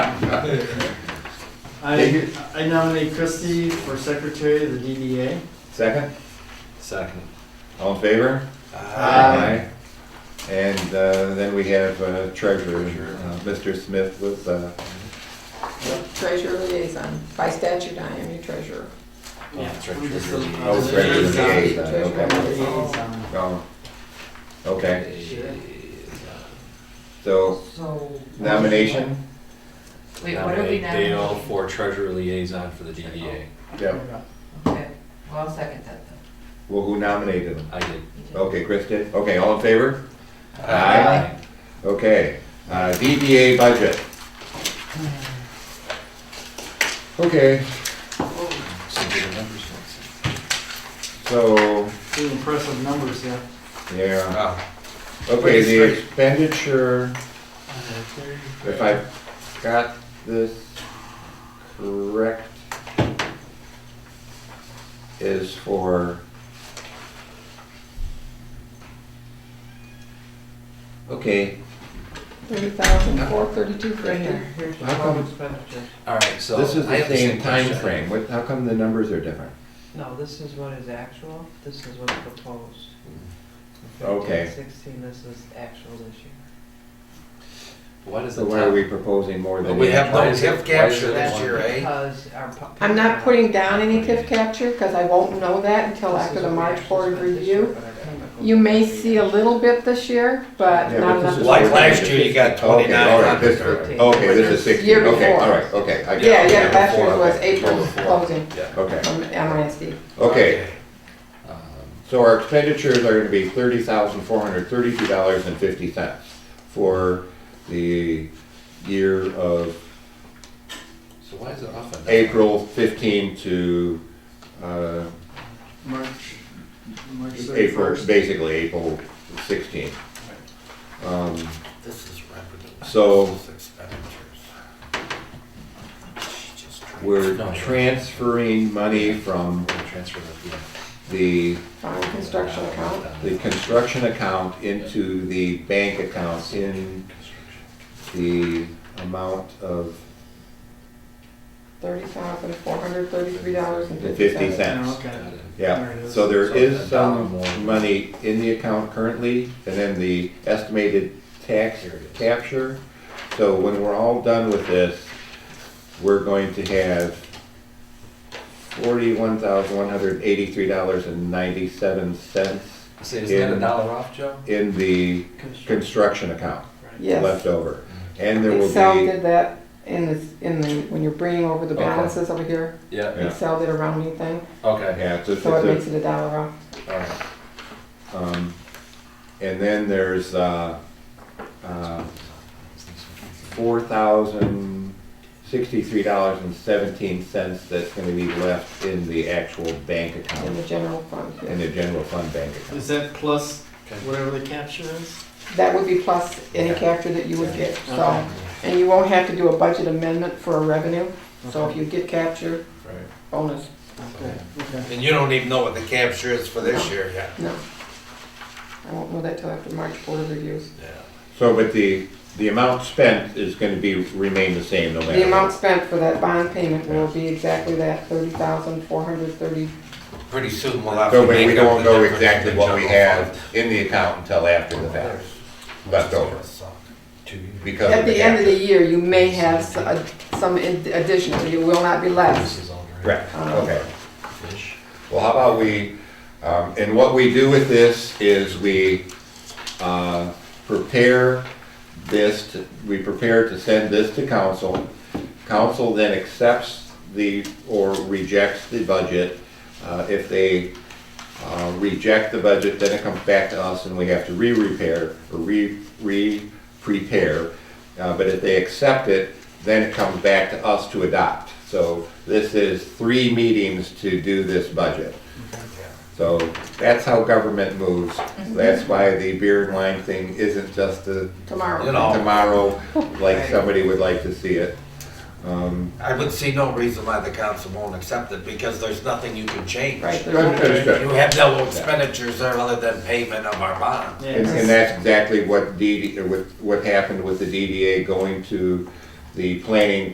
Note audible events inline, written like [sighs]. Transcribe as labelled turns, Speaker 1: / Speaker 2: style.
Speaker 1: I, I nominate Christie for secretary of the DDA.
Speaker 2: Second?
Speaker 3: Second.
Speaker 2: All in favor?
Speaker 1: Aye.
Speaker 2: And uh, then we have uh, treasurer, uh, Mr. Smith was, uh,
Speaker 4: Treasurer liaison, by statute, I am your treasurer.
Speaker 1: Yeah,
Speaker 3: treasurer
Speaker 1: I'm Uh, just a-
Speaker 3: liaison.
Speaker 1: I'm
Speaker 2: oh,
Speaker 1: just a
Speaker 2: treasurer
Speaker 1: liaison.
Speaker 2: liaison,
Speaker 4: Treasurer.
Speaker 2: okay.
Speaker 1: Liaison.
Speaker 2: Um, Okay,
Speaker 1: Sure.
Speaker 2: so
Speaker 5: So.
Speaker 2: nomination?
Speaker 5: Wait, what are we
Speaker 3: Nominate Dale
Speaker 5: nominating?
Speaker 3: for treasurer liaison for the DDA.
Speaker 2: Yeah,
Speaker 5: Okay, well, I'll second that then.
Speaker 2: well, who nominated him?
Speaker 3: I did.
Speaker 2: Okay, Chris did? Okay, all in favor? Uh, Aye. Okay, uh,
Speaker 1: [sighs]
Speaker 2: DDA budget. Okay,
Speaker 3: Some good numbers.
Speaker 2: so,
Speaker 1: Pretty impressive numbers, yeah.
Speaker 2: yeah.
Speaker 3: Wow.
Speaker 2: Okay, the expenditure, if I got this correct, is for Okay,
Speaker 4: Thirty thousand, four thirty-two
Speaker 5: Right here,
Speaker 4: fifty.
Speaker 5: here's your
Speaker 2: How come-
Speaker 5: total expenditure.
Speaker 3: All right, so.
Speaker 2: this is
Speaker 3: I
Speaker 2: the
Speaker 3: have
Speaker 2: same
Speaker 3: question.
Speaker 2: timeframe, what, how come the numbers are different?
Speaker 5: No, this is what is actual, this is what's proposed.
Speaker 2: Okay.
Speaker 5: Fifteen, Sixteen, this is actual this year.
Speaker 3: What is the
Speaker 2: So
Speaker 3: time?
Speaker 2: why are we proposing more than?
Speaker 6: But we have
Speaker 3: Why
Speaker 6: no
Speaker 3: is it-
Speaker 6: gift capture
Speaker 3: why is it
Speaker 6: this year, eh?
Speaker 5: Because our. pu-
Speaker 4: I'm not putting down any TIF capture, because I won't know that until
Speaker 5: This
Speaker 4: after
Speaker 5: is
Speaker 4: the
Speaker 5: what we
Speaker 4: March
Speaker 5: actually
Speaker 4: board
Speaker 5: spent this
Speaker 4: review.
Speaker 5: year, but I gotta go
Speaker 4: You may see a
Speaker 5: through
Speaker 4: little bit this year, but
Speaker 2: Yeah, but
Speaker 4: not
Speaker 2: this
Speaker 4: enough.
Speaker 2: is-
Speaker 6: Like last year, you got
Speaker 2: Okay, all right,
Speaker 6: twenty-nine
Speaker 2: this-
Speaker 6: hundred.
Speaker 5: Fifteen.
Speaker 2: Okay, this is sixteen,
Speaker 4: Year
Speaker 2: okay,
Speaker 4: before.
Speaker 2: all right, okay. I-
Speaker 4: Yeah, yeah, last
Speaker 2: before,
Speaker 4: year's was
Speaker 2: okay.
Speaker 4: April closing
Speaker 3: Yeah.
Speaker 2: Okay,
Speaker 4: from MISD.
Speaker 2: okay,
Speaker 3: Um,
Speaker 2: so our expenditures are gonna be thirty thousand four hundred thirty-two dollars and fifty cents for the year of
Speaker 3: So why is it off on that?
Speaker 2: April fifteen to, uh,
Speaker 1: March, March
Speaker 2: April,
Speaker 1: 31st.
Speaker 2: basically April sixteen. Um,
Speaker 6: This is revenue.
Speaker 2: So-
Speaker 6: This is expenditures. She just tried-
Speaker 2: We're
Speaker 3: No, you're right.
Speaker 2: transferring money from
Speaker 3: We'll Transfer that, yeah.
Speaker 2: the,
Speaker 4: Farm construction account.
Speaker 2: the construction account into the bank account in
Speaker 3: Construction.
Speaker 2: the amount of
Speaker 4: Thirty thousand, four hundred thirty-three dollars and
Speaker 2: fifty
Speaker 4: fifty cents.
Speaker 1: Oh,
Speaker 2: cents.
Speaker 1: Okay. There it
Speaker 2: Yeah,
Speaker 1: is.
Speaker 2: so there
Speaker 3: So
Speaker 2: is
Speaker 3: a dollar
Speaker 2: some
Speaker 3: more.
Speaker 2: money in the account currently, and then the estimated tax
Speaker 3: Here it is.
Speaker 2: capture. So when we're all done with this, we're going to have forty-one thousand one hundred eighty-three dollars and ninety-seven cents
Speaker 3: Say, isn't that
Speaker 2: in-
Speaker 3: a dollar off, Joe?
Speaker 2: in the
Speaker 5: construction.
Speaker 2: construction account
Speaker 4: Yes.
Speaker 2: left over. And there
Speaker 4: Excel
Speaker 2: will be,
Speaker 4: did that in this, in the, when you're bringing over the
Speaker 2: Okay.
Speaker 4: balances over here,
Speaker 3: Yeah,
Speaker 2: Yeah.
Speaker 4: Excel did a rounding thing,
Speaker 3: okay,
Speaker 2: yeah, it's a-
Speaker 4: so it
Speaker 2: it's
Speaker 4: makes it a dollar off.
Speaker 3: all right.
Speaker 2: a- um, and then there's, uh, uh, four thousand sixty-three dollars and seventeen cents that's gonna be left in the actual bank
Speaker 4: In the
Speaker 2: account,
Speaker 4: general fund,
Speaker 2: in
Speaker 4: yes.
Speaker 2: the general fund bank
Speaker 1: Is
Speaker 2: account.
Speaker 1: that plus
Speaker 3: Okay.
Speaker 1: whatever the capture is?
Speaker 4: That would be plus any
Speaker 2: Yeah.
Speaker 4: capture that you would get, so,
Speaker 1: Okay.
Speaker 4: and you won't have to do a budget amendment for a revenue, so if
Speaker 1: Okay.
Speaker 4: you get capture, bonus,
Speaker 1: Okay, okay.
Speaker 6: And you don't even know what the capture is for this year yet.
Speaker 4: no. I won't know that till after March Board of Reviews.
Speaker 2: So, but the, the amount spent is gonna be, remain the same no matter.
Speaker 4: The amount spent for that bond payment will be exactly that, thirty thousand, four hundred thirty,
Speaker 6: Pretty soon we'll have
Speaker 2: So
Speaker 6: to
Speaker 2: we
Speaker 6: make
Speaker 2: we
Speaker 6: up
Speaker 2: don't
Speaker 6: the
Speaker 2: know
Speaker 6: difference
Speaker 2: exactly
Speaker 6: in
Speaker 2: what we
Speaker 6: general
Speaker 2: have
Speaker 6: fund.
Speaker 2: in the account until after the fact, left over, because
Speaker 4: at
Speaker 2: of the
Speaker 4: the end of the
Speaker 2: capture.
Speaker 4: year, you may have s- a- some ad- additional, you will not be less.
Speaker 3: This is all right.
Speaker 2: Correct,
Speaker 4: Um,
Speaker 2: okay.
Speaker 3: Fish.
Speaker 2: Well, how about we, um, and what we do with this is we, uh, prepare this, to- we prepare to send this to council. Council then accepts the, or rejects the budget. Uh, if they, uh, reject the budget, then it comes back to us and we have to re-repair, or re, re-prepare. Uh, but if they accept it, then it comes back to us to adopt. So this is three meetings to do this budget. So that's how government moves. That's why the beer and wine thing isn't just a
Speaker 4: Tomorrow.
Speaker 6: You know.
Speaker 2: tomorrow, like somebody would like to see it. Um,
Speaker 6: I would see no reason why the council won't accept it, because there's nothing you can change.
Speaker 4: Right, there's no-
Speaker 2: And
Speaker 6: You have no expenditures there other than payment of our bond.
Speaker 1: Yeah.
Speaker 2: and that's exactly what DD, what, what happened with the DDA going to the planning